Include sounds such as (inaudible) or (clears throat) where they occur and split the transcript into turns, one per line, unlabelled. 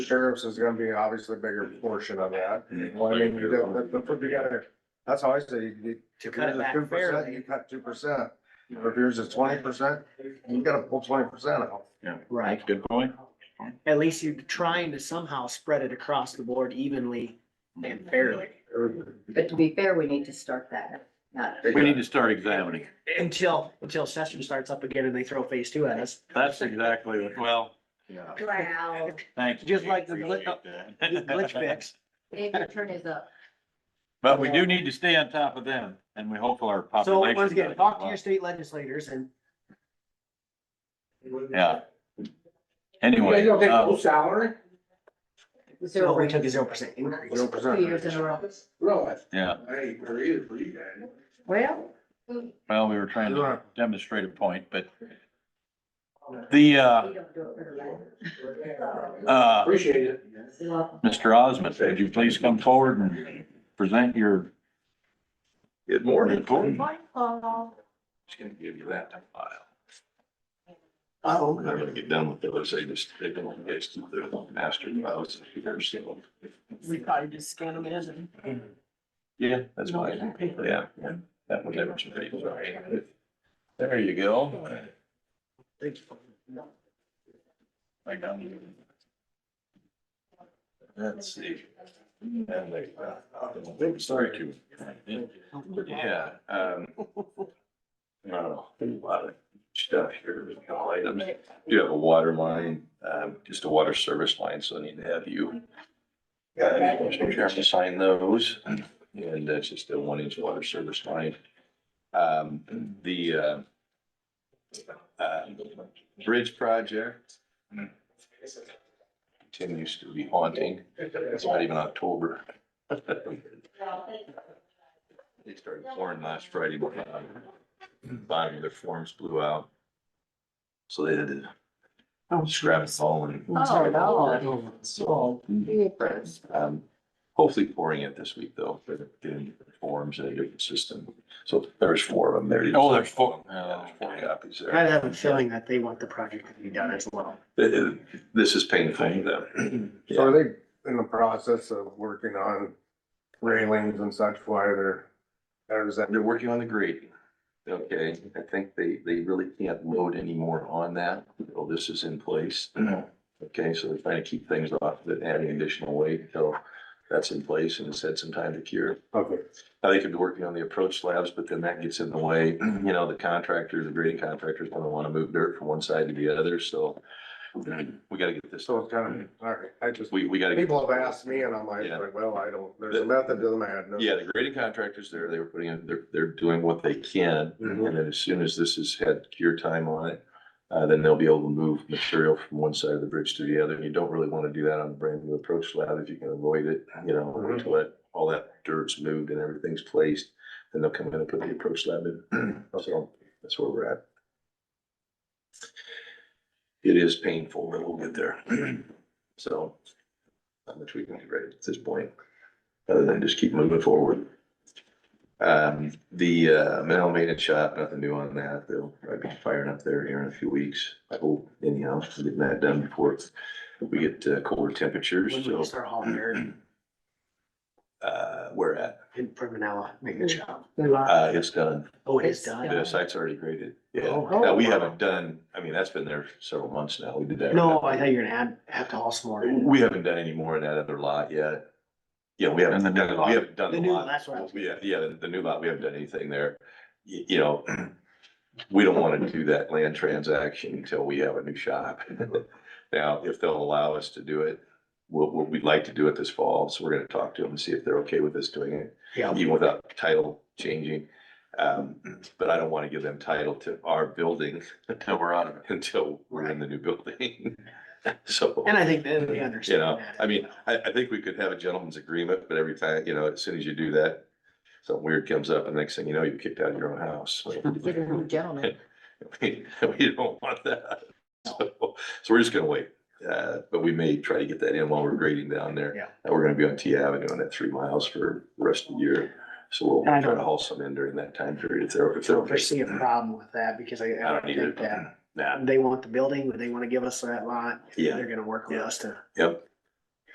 sheriffs is gonna be obviously a bigger portion of that. Well, I mean, you don't, but, but put together, that's how I say, you- you,
To
if
cut
yours
it
is
back
two percent, you
fairly.
cut two percent. Or if yours is twenty percent, you gotta pull twenty percent out.
Right.
Good point.
At least you're trying to somehow spread it across the board evenly and fairly.
But to be fair, we need to start that, not
We need to start examining.
Until, until session starts up again and they throw phase two at us.
That's exactly, what- well,
Yeah.
Wow,
thanks.
Just like the glit- Glitch
glitch
fix.
Dave, your turn is up.
(laughs) But we do need to stay on top of them and we hope our
So
population.
once again,
does
talk to
well.
your state legislators and
Yeah. Anyway, uh,
salary?
so we took a zero percent increase.
Zero
Two years in
percent.
a row.
Really?
yeah,
Hey, there is for you guys.
Well, we
well, we were trying to demonstrate a point, but the, uh,
don't do it for the last.
uh,
Appreciate it.
You're welcome.
Mr. Osmond, would you please come forward and present your?
Good morning.
report?
Just gonna give you that to file.
Oh,
I'm not gonna get done with those. I just, they don't get to the master files here, so.
We probably just scan them in and.
Yeah, that's why. Yeah, yeah. that one never should be. There you go.
Thank you.
I got it. Let's see. And they, uh, sorry to. Yeah, um. I don't know, a lot of stuff here, but no items. Do have a water line, um, just a water service line, so I need to have you. Uh, Mr. Chairman, to sign those, and that's just a one inch water service line. Um, the, uh. Uh, bridge project. Continues to be haunting, it's not even October. They started pouring last Friday morning. Bottom of their forms blew out. So they had to scrap it all and.
Oh, no.
So, um, hopefully pouring it this week though, for the getting the forms in a different system. So there's four of them there.
Oh, there's four.
Yeah, there's four copies there.
I have a feeling that they want the project to be done as well.
It- it- This is painful to them.
So are they in the process of working on railings and such, why they're, or is that?
They're working on the grading. Okay, I think they, they really can't load any more on that. Well, this is in place. Okay, so they're trying to keep things off, but adding additional weight until that's in place and it's had some time to cure.
Okay.
Now they could be working on the approach slabs, but then that gets in the way, you know, the contractor, the grading contractor's gonna wanna move dirt from one side to the other, so. We gotta get this,
So it's kind of, all right, I just,
we, we gotta. get-
people have asked me and I'm like,
Yeah.
well, I don't, there's a method to the madness.
Yeah, the grading contractors there, they were putting in, they're, they're doing what they can.
Mhm.
And then as soon as this has had cure time on it, uh, then they'll be able to move material from one side of the bridge to the other. And you don't really want to do that on a brand new approach slab if you can avoid it, you know,
Mhm.
until it, all that dirt's moved and everything's placed. Then they'll come in and put the approach slab in. (clears throat) So that's where we're at. It is painful, but we'll get there. (clears throat) So not much we can do right at this point, other than just keep moving forward. Um, the, uh, metal maintenance shop, nothing new on that. They'll probably be firing up there here in a few weeks. I hope anyhow, getting that done before we get uh, colder temperatures,
When
so.
we start hauling dirt
Uh, we're at,
in Permanella, make the (clears throat) job.
uh, it's done.
Oh, it is done.
The site's already graded. Yeah.
Oh,
Now, we
wow.
haven't done, I mean, that's been there several months now. We did that.
No, I thought you were gonna add, have to haul some more. in.
We haven't done any more in that other lot yet. Yeah, we
And the
haven't
new
done,
lot.
we haven't done
The
the
new,
lot.
that's what I was.
Yeah, yeah, the- the new lot, we haven't done anything there. Y- You know, (clears throat) we don't want to do that land transaction until we have a new shop. (laughs) Now, if they'll allow us to do it, we'll, we'll- we'd like to do it this fall, so we're gonna talk to them and see if they're okay with us doing it,
Yeah.
even without title changing. Um, (clears throat) but I don't want to give them title to our building (laughs)
Until we're out of it.
until we're in the new building. (laughs) So.
And I think then they
You
understand
know,
that.
I mean, I, I think we could have a gentleman's agreement, but every time, you know, as soon as you do that, something weird comes up and next thing you know, you kicked out of your own house.
(laughs)
So
Get a new gentleman.
(laughs) We we don't want that. So, so we're just gonna wait. Uh, but we may try to get that in while we're grading down there.
Yeah.
And we're gonna be on T Avenue on that three miles for the rest of the year. So we'll
And I
try to
don't-
haul some in during that time period if they're, if
I
they're.
don't
okay.
foresee a problem with that because I,
I
I
don't
think that
either. Nah,
they want the building, they wanna give us that lot.
Yeah.
They're gonna work with us to.
Yep,